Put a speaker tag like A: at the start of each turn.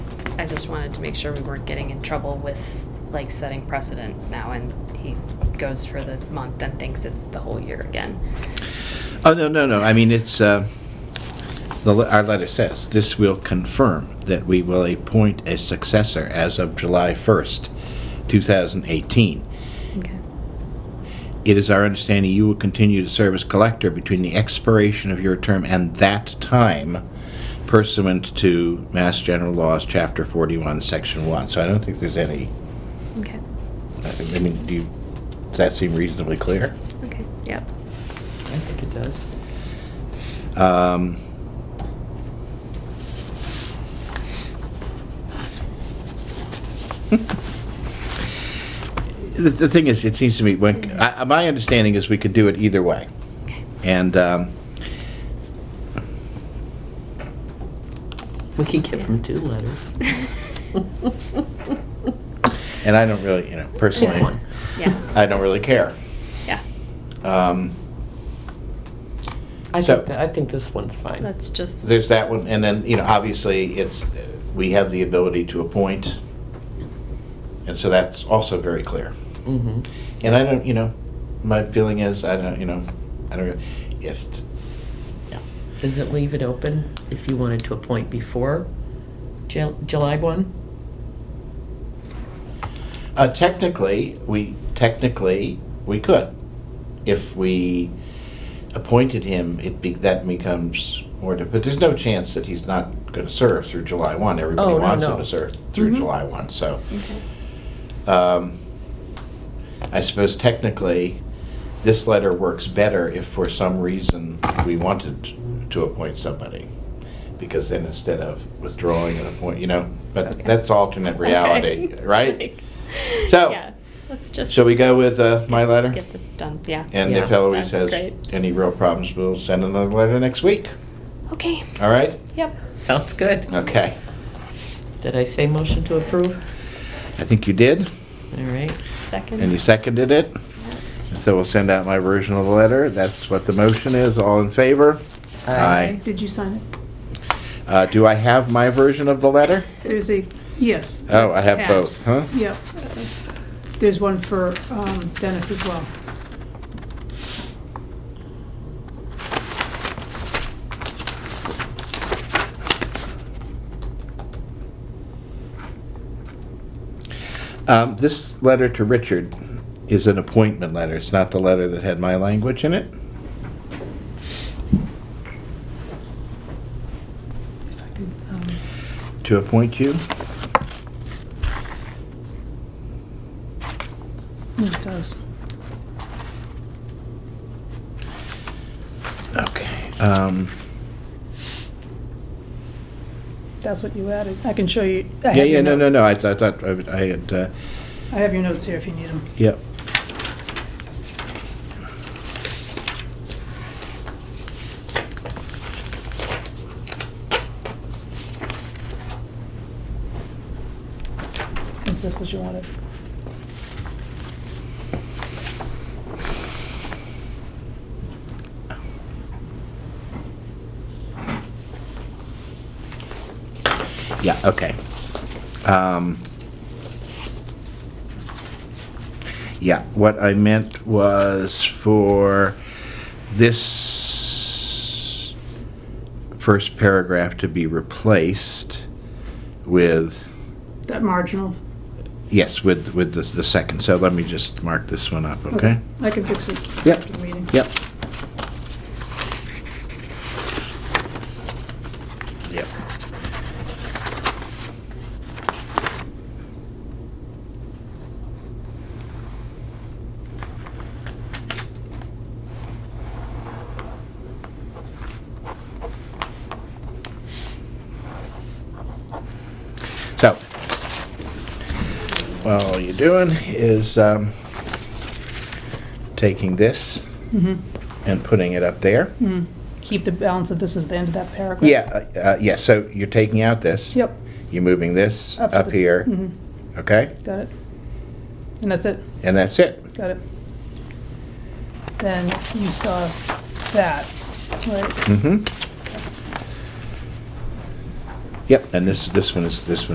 A: I just wanted to make sure we weren't getting in trouble with, like, setting precedent now, and he goes for the month and thinks it's the whole year again.
B: Oh, no, no, no, I mean, it's, uh, the, le- our letter says, this will confirm that we will appoint a successor as of July 1st, 2018.
A: Okay.
B: It is our understanding you will continue to serve as collector between the expiration of your term and that time pursuant to Mass General Laws, Chapter 41, Section 1. So I don't think there's any,
A: Okay,
B: I mean, do you, does that seem reasonably clear?
A: okay, yep.
C: I think it does.
B: Um, The, the thing is, it seems to me, when, I, I- my understanding is we could do it either way.
A: Okay.
B: And, um,
C: We could give him two letters.
B: and I don't really, you know, personally,
C: One.
A: Yeah,
B: I don't really care.
A: yeah,
B: Um,
C: I
B: So-
C: think that, I think this one's fine.
A: that's just,
B: There's that one, and then, you know, obviously, it's, we have the ability to appoint, and so that's also very clear.
C: Mm-hmm.
B: And I don't, you know, my feeling is, I don't, you know, I don't, if, yeah.
C: Does it leave it open if you wanted to appoint before Ju- July one?
B: Uh, technically, we, technically, we could. If we appointed him, it be, that becomes more, di- but there's no chance that he's not gonna serve through July one. Everybody
C: Oh, no,
B: wants
C: no.
B: him to serve through
A: Mhm.
B: July one, so.
A: okay,
B: Um, I suppose technically, this letter works better if for some reason we wanted to appoint somebody. Because then instead of withdrawing an appoint, you know,
A: Okay.
B: but that's alternate reality,
A: Okay.
B: right? So-
A: Yeah, Let's just
B: Shall we go with uh, my letter?
A: get this done, yeah.
B: And if
C: Yeah.
B: Eloise
A: That's
B: has
A: great.
B: any real problems, we'll send another letter next week.
A: Okay,
B: All right?
A: yep.
C: Sounds good.
B: Okay.
C: Did I say motion to approve?
B: I think you did,
C: All right.
A: Second.
B: and you seconded it. So we'll send out my version of the letter. That's what the motion is. All in favor? Aye.
D: Did you sign it?
B: Uh, do I have my version of the letter?
D: There's a, yes.
B: Oh, I have
D: Tab.
B: both, huh?
D: Yep. There's one for um, Dennis as well.
B: Um, this letter to Richard is an appointment letter. It's not the letter that had my language in it.
D: If I could, um,
B: To appoint you?
D: no, oh, It does.
B: Okay. Um,
D: That's what you added. I can show you. I have
B: yeah,
D: your
B: yeah, no, no,
D: notes.
B: no. I, th- I thought I, would- I had, uh,
D: I have your notes here if you need them.
B: yep.
D: Is this what you wanted?
B: Yeah, okay. Um, yeah, what I meant was for this first paragraph to be replaced with.
D: That marginal?
B: Yes, with, with the, the second, so let me just mark this one up, okay?
D: I can fix it
B: Yep.
D: after the meeting.
B: Yep. Yep. So, well, all you're doing is, um, taking this
D: Mhm.
B: and putting it up there.
D: Mm. Keep the balance of this as the end of that paragraph.
B: Yeah, uh, uh, yeah, so you're taking out this.
D: Yep.
B: You're moving this
D: to
B: up
D: the-
B: here,
D: Mhm.
B: okay?
D: Got it. And that's it.
B: And that's it.
D: Got it. Then you saw that, right?
B: Mm-hmm. Yep, and this, this one is, this one